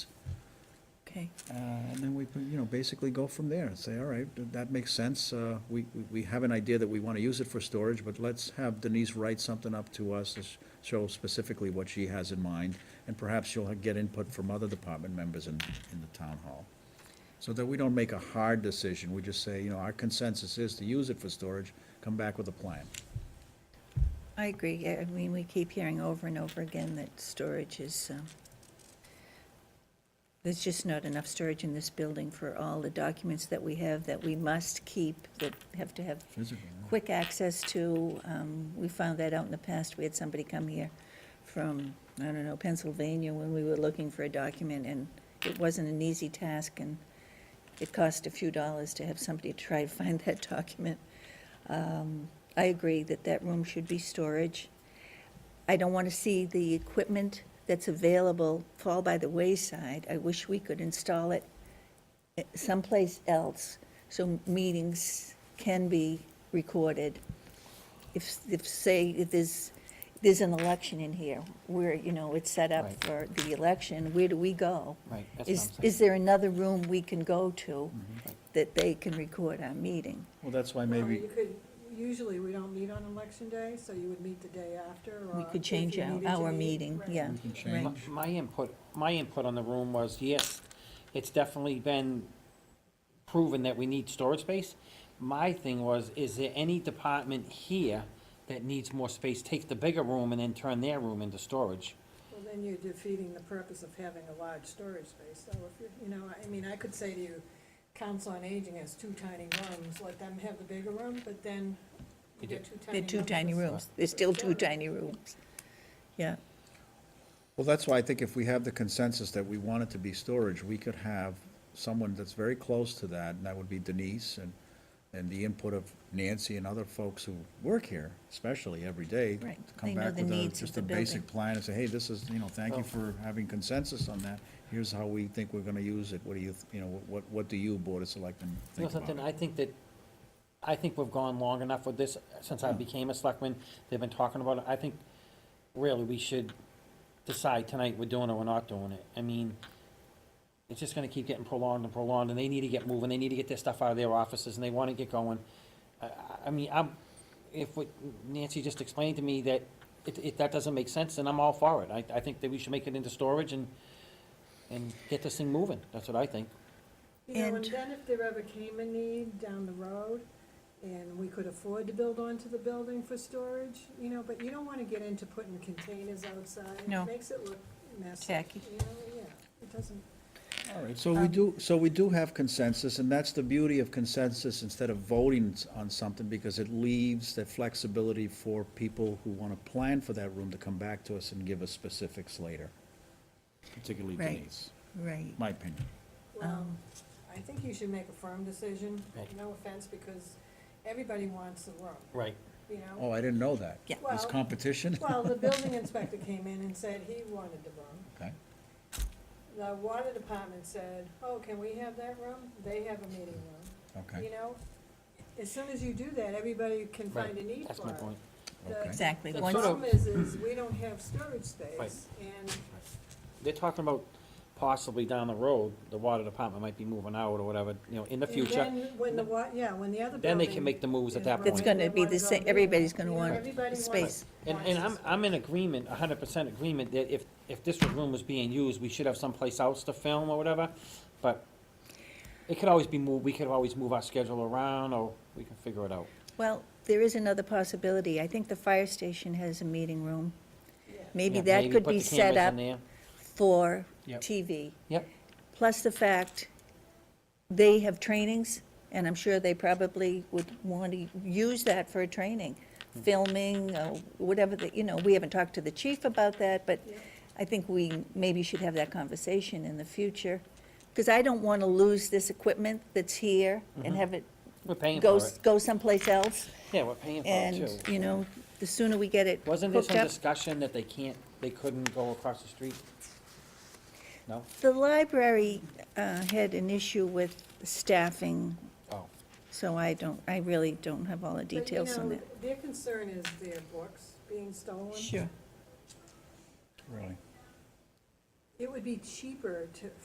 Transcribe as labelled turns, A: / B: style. A: Okay.
B: Uh, And then we, you know, basically go from there and say, all right, that makes sense. Uh, We, we- we have an idea that we want to use it for storage, but let's have Denise write something up to us to sh- show specifically what she has in mind. And perhaps she'll get input from other department members in, in the town hall. So that we don't make a hard decision. We just say, you know, our consensus is to use it for storage, come back with a plan.
A: I agree. Yeah, I mean, we keep hearing over and over again that storage is, um, there's just not enough storage in this building for all the documents that we have that we must keep, that have to have
B: Physical, yeah.
A: quick access to. Um, We found that out in the past. We had somebody come here from, I don't know, Pennsylvania when we were looking for a document, and it wasn't an easy task, and it cost a few dollars to have somebody try to find that document. Um, I agree that that room should be storage. I don't want to see the equipment that's available fall by the wayside. I wish we could install it eh, someplace else, so meetings can be recorded. If, if, say, if there's, there's an election in here, where, you know, it's set up
C: Right.
A: for the election, where do we go?
C: Right, that's what
A: Is,
C: I'm saying. Mm-hmm.
A: is there another room we can go to that they can record our meeting?
B: Well, that's why
D: Well,
B: maybe,
D: You could, usually, we don't meet on election day, so you would meet the day after, or.
A: We could
D: if
A: change
D: you
A: our,
D: needed to
A: our
D: meet,
A: meeting,
D: right.
A: yeah.
B: we can change.
A: Right.
C: My- My input, my input on the room was, yes, it's definitely been proven that we need storage space. My thing was, is there any department here that needs more space? Take the bigger room and then turn their room into storage.
D: Well, then you're defeating the purpose of having a large storage space, so if you, you know, I mean, I could say to you, council on aging has two tiny rooms, let them have the bigger room, but then you get two tiny
A: They're
D: rooms.
A: two tiny rooms. There's still two tiny rooms. Yeah,
B: Well, that's why I think if we have the consensus that we want it to be storage, we could have someone that's very close to that, and that would be Denise, and, and the input of Nancy and other folks who work here, especially every day.
A: Right.
B: to
A: They
B: Come
A: know
B: back
A: the
B: with a,
A: needs of
B: just
A: the
B: a basic
A: building.
B: plan and say, hey, this is, you know, thank you for having consensus on that. Here's how we think we're gonna use it. What do you, th- you know, what, what do you, Board of Selectmen,
C: You know
B: think about
C: something,
B: it?
C: I think that, I think we've gone long enough with this, since I became a selectman, they've been talking about it, I think really we should decide tonight we're doing it or we're not doing it. I mean, it's just gonna keep getting prolonged and prolonged, and they need to get moving, they need to get their stuff out of their offices, and they wanna get going. I, I- I mean, I'm, if what Nancy just explained to me that it, it, that doesn't make sense, then I'm all for it. I, I think that we should make it into storage and, and get this thing moving, that's what I think.
D: You know, and
A: And-
D: then if there ever came a need down the road, and we could afford to build onto the building for storage, you know, but you don't wanna get into putting containers outside.
A: No.
D: It makes it look messy.
A: Tacky.
D: You know, yeah, it doesn't,
B: All right,
A: Um,
B: so we do, so we do have consensus, and that's the beauty of consensus instead of voting s- on something, because it leaves the flexibility for people who want to plan for that room to come back to us and give us specifics later, particularly
A: Right.
B: Denise,
A: right.
B: my opinion.
A: Um,
D: well, I think you should make a firm decision,
C: Right.
D: no offense, because everybody wants the room,
C: Right.
D: you know?
B: Oh, I didn't know that.
A: Yeah.
B: There's
D: Well-
B: competition?
D: Well, the building inspector came in and said he wanted the room.
B: Okay,
D: The water department said, oh, can we have that room? They have a meeting room. You
B: okay,
D: know, as soon as you do that, everybody can find a
C: Right,
D: need
C: That's
D: for
C: my
D: it.
C: point.
D: The-
B: okay.
A: Exactly.
D: The
C: That's sort
A: Once,
D: problem is, is we don't have storage
C: Right.
D: space, and,
C: They're talking about possibly down the road, the water department might be moving out or whatever, you know, in the
D: and
C: future.
D: then when the wa, yeah, when the other building.
C: Then they can make the moves at
D: is
C: that
D: ready,
C: point.
A: That's gonna
D: they
A: be the
D: wanna go
A: same-
D: do it.
A: everybody's gonna
D: You know,
A: want
D: everybody wants-
A: space.
C: And,
D: wants
C: and
D: the
C: I'm,
D: space.
C: I'm in agreement, a hundred percent agreement that if, if this room was being used, we should have someplace else to film or whatever, but it could always be moved, we could always move our schedule around or we can figure it out.
A: well, there is another possibility. I think the fire station has a meeting room.
D: Yeah.
A: Maybe
C: Yeah,
A: that could
C: put
A: be
C: the
A: set
C: cameras
A: up
C: in there.
A: for
C: Yep.
A: TV.
C: Yep,
A: Plus the fact, they have trainings, and I'm sure they probably would want to use that for a training, filming, uh, whatever, the- you know, we haven't talked to the chief about that, but
D: Yeah.
A: I think we maybe should have that conversation in the future, because I don't want to lose this equipment that's here and have it
C: we're Mm-hmm. paying
A: go,
C: for
A: s-
C: it.
A: go someplace else,
C: Yeah, we're paying for
A: and,
C: it too.
A: you know, the sooner we get it
C: Wasn't there
A: hooked
C: some
A: up.
C: discussion that they can't, they couldn't go across the street? No?
A: The library uh, had an issue with staffing
C: Oh.
A: So I don't, I really don't have all the
D: But, you
A: details on
D: know,
A: that.
D: Their concern is their books being stolen.
B: Really?
D: It would be cheaper to,